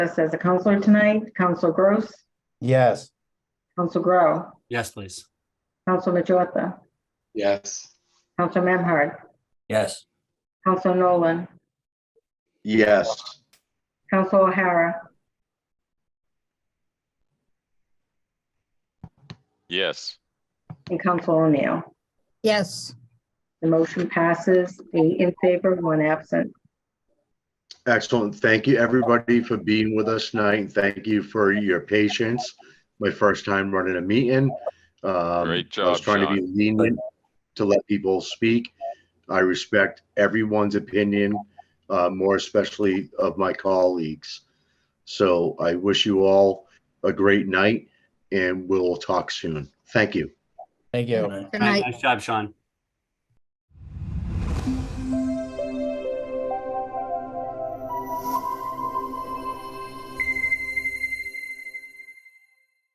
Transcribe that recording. us as a counselor tonight. Counsel Gross, Yes. Counsel Grow, Yes, please. Counsel Majota, Yes. Counsel Memhard, Yes. Counsel Nolan, Yes. Counsel O'Hara, yes, and Counsel O'Neill. yes, The motion passes eight in favor, one absent. Excellent. Thank you, everybody, for being with us tonight. Thank you for your patience. My first time running a meeting. Um, Great I job, was trying to be lenient to let people speak. I respect everyone's opinion, uh, more especially of my colleagues. So I wish you all a great night and we'll talk soon. Thank you. Thank you. good night. Nice job, Sean.